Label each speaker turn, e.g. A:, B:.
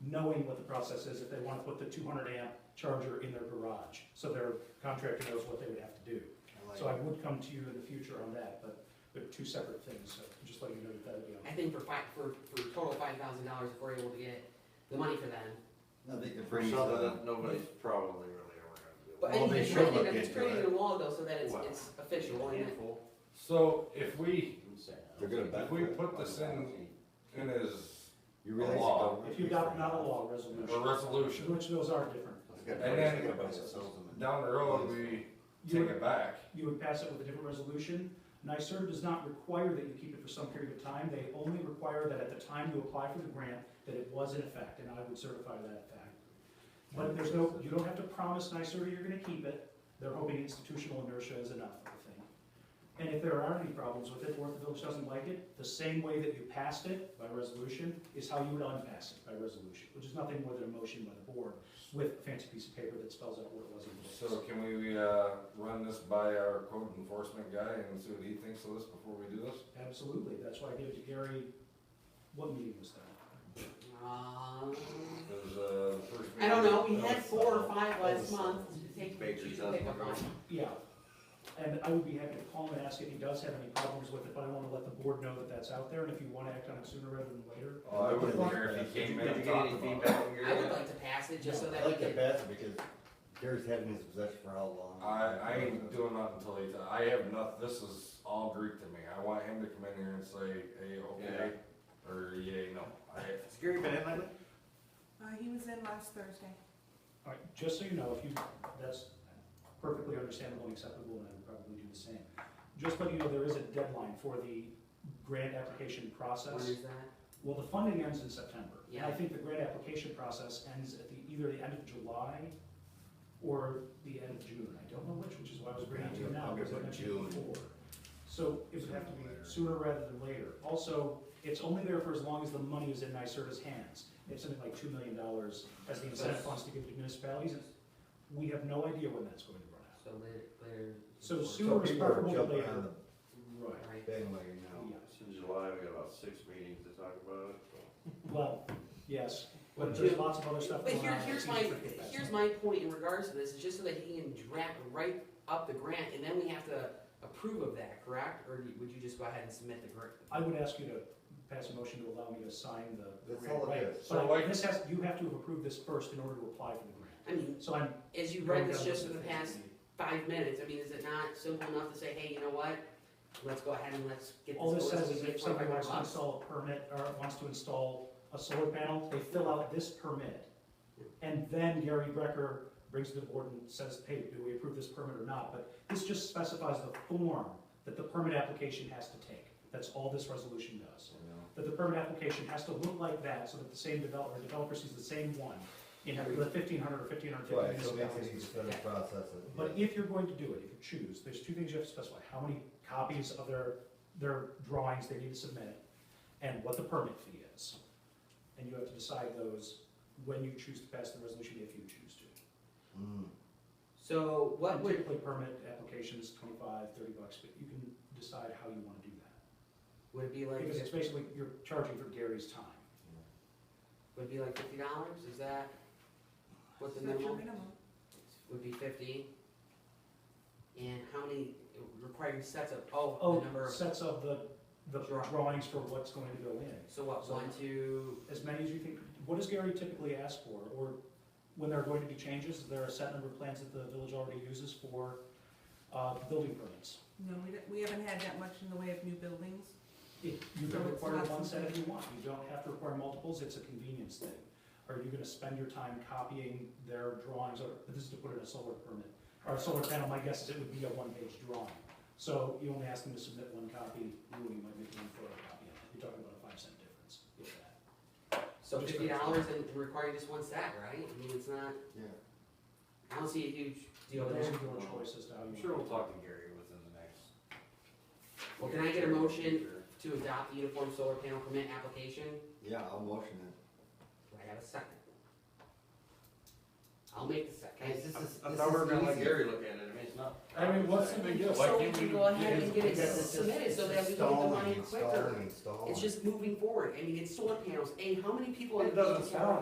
A: knowing what the process is if they want to put the two hundred amp charger in their garage. So their contractor knows what they would have to do.
B: like
A: So I would come to you in the future on that, but they're two separate things, so just let you know that that'd be on.
C: I think for five, for, for a total five thousand dollars, if we're able to get the money for them.
B: No, they could
D: For
B: bring
D: Southern,
B: something.
D: nobody's probably really ever gonna do it.
C: But I
B: Well,
C: think
B: they
C: I
B: should
C: think
B: look
C: that's
B: into
C: creating
B: it.
C: a law though, so that it's,
D: Wow.
C: it's official, isn't it?
D: Handful.
E: So if we,
B: They're gonna benefit.
E: if we put this in, in as
B: You realize.
E: law.
B: the government-
A: If you got not a law resolution,
E: a resolution,
A: which those are different.
B: It's got
E: And
B: notice
E: then-
B: to everybody that sells them.
E: down the road, we
A: You
E: take
A: would,
E: it back.
A: you would pass it with a different resolution. NYSERD does not require that you keep it for some period of time. They only require that at the time you apply for the grant, that it was in effect, and I would certify that fact. But there's no, you don't have to promise NYSERD you're gonna keep it. They're hoping institutional inertia is enough, I think. And if there are any problems with it, or if the village doesn't like it, the same way that you passed it by resolution is how you would unpass it by resolution, which is nothing more than a motion by the board with a fancy piece of paper that spells out what it was. in the
E: So can we, uh, run this by our code enforcement guy and see what he thinks of this before we do this?
A: Absolutely, that's why I gave it to Gary, what meeting was that?
C: Um,
E: Cause, uh, the first.
C: I don't know, we
E: meeting-
C: had four or five last
D: That was-
C: month, take,
D: Baker's
C: choose to
D: dozen
C: pick up
D: ago.
C: one.
A: Yeah, and I would be happy to call him and ask if he does have any problems with it, but I wanna let the board know that that's out there, and if you wanna act on it sooner rather than later.
E: Oh, I wouldn't care if he
D: Did
E: came
D: you
E: in
D: did you
E: and
D: get
E: talked
D: any
E: about it.
D: feedback from your
C: I would
D: end?
C: like to pass it just so
B: I
C: that we
B: like that
C: can,
B: best because Gary's having his possession for how long?
E: I, I ain't doing nothing until he, I have enough, this is all Greek to me, I want him to come in here and say, hey, okay, or yay, no. I,
D: Has Gary been in lately?
F: Uh, he was in last Thursday.
A: All right, just so you know, if you, that's perfectly understandable and acceptable, and I would probably do the same. Just letting you know, there is a deadline for the grant application
C: when
A: process.
C: is that?
A: Well, the funding ends in September. And I
C: Yeah.
A: think the grant application process ends at the, either the end of July or the end of June. I don't know which, which is why I was bringing it to you now,
B: I'm gonna
A: because I
B: put
A: mentioned
B: June.
A: it before. So it would have to be sooner rather than later. Also, it's only there for as long as the money is in NYSERDA's hands. It's something like two million dollars as the incentive funds to give to municipalities. We have no idea when that's going to run out.
C: So later, later.
A: So
B: So
A: sooner is
B: people are
A: preferable
B: jumping
A: later.
B: on
A: Right.
B: the
C: Right,
B: bandwagon now.
A: Yeah.
D: It's in July, we got about six meetings to talk about it, so.
A: Well, yes, but there's lots of other stuff
C: but
A: going on.
C: here,
A: It
C: here's
A: seems
C: my,
A: pretty fast.
C: here's my point in regards to this, is just so that he can draft, write up the grant, and then we have to approve of that, correct? Or do- would you just go ahead and submit the grant?
A: I would ask you to pass a motion to allow me to sign the. the
B: That's
A: grant,
B: all it
A: right?
B: is.
E: So
A: But
E: like-
A: this has, you have to have approved this first in order to apply for the grant.
C: I mean,
A: So I'm.
C: as you
A: going
C: read this
A: down
C: just
A: the
C: in the
A: things
C: past
A: we need.
C: five minutes, I mean, is it not simple enough to say, hey, you know what? Let's go ahead and let's get this.
A: All this
C: over
A: says
C: with,
A: is
C: make
A: if somebody wants to
C: 25
A: install a permit or wants to install a solar panel, they fill out this permit. And then Gary Brecker brings it to the board and says, hey, do we approve this permit or not? But this just specifies the form that the permit application has to take. That's all this resolution does.
B: You know?
A: that the permit application has to look like that, so that the same developer, developer sees the same one in the fifteen hundred or fifteen hundred
B: Right, so
A: fifty
B: it makes it
A: municipalities.
B: easier to process it.
A: But if you're going to do it, if you choose, there's two things you have to specify, how many copies of their, their drawings they need to submit, and what the permit fee is. And you have to decide those when you choose to pass the resolution, if you choose to.
B: Mm.
C: So what
A: And
C: would,
A: Typically, permit applications, twenty-five, thirty bucks, but you can decide how you wanna do that.
C: would it be like,
A: Because it's basically, you're charging for Gary's time.
C: would it be like fifty dollars, is that what the
F: That's your
C: minimum
F: minimum.
C: would be fifty? And how many, requiring sets of, oh,
A: Oh,
C: the number of,
A: sets of the, the
C: Drawing.
A: drawings for what's going to go in.
C: so what,
A: so-
C: one, two,
A: As many as you think, what does Gary typically ask for? Or when there are going to be changes, is there a set number of plans that the village already uses for uh, building permits?
F: No, we, don't- we haven't had that much in the way of new buildings.
A: If You can
F: No, it's
A: require
F: not
A: one set if you
F: something-
A: want, you don't have to require multiples, it's a convenience thing. Are you gonna spend your time copying their drawings, or, but this is to put in a solar permit, or a solar panel, my guess is it would be a one-page drawing. So you only ask them to submit one copy, you only might make one photocopy, of it. you're talking about a five cent difference, if that.
C: so
A: Just
C: fifty
A: for-
C: dollars and requiring just one set, right? I mean, it's not,
B: Yeah.
C: I don't see a huge deal
A: Those
C: there.
A: are your choices to how you.
D: I'm sure we'll talk to Gary within the next.
C: Well, can I get a motion
D: Sure.
C: to adopt the uniform solar panel permit application?
B: Yeah, I'll motion it.
C: Do I have a second? I'll make the second.
D: I I thought we were gonna let Gary look at it, I mean, it's not.
E: I mean, what's the big deal? Why
C: So we
E: can't
C: can go ahead
E: get
C: and
E: his-
C: get it
B: Because it's just-
C: submitted so
B: it's
C: that we can get the money
B: installing,
C: quicker.
B: Installing, installing.
C: It's just moving forward. I mean, it's solar panels. A, how many people? in
D: It doesn't
C: the-
D: sound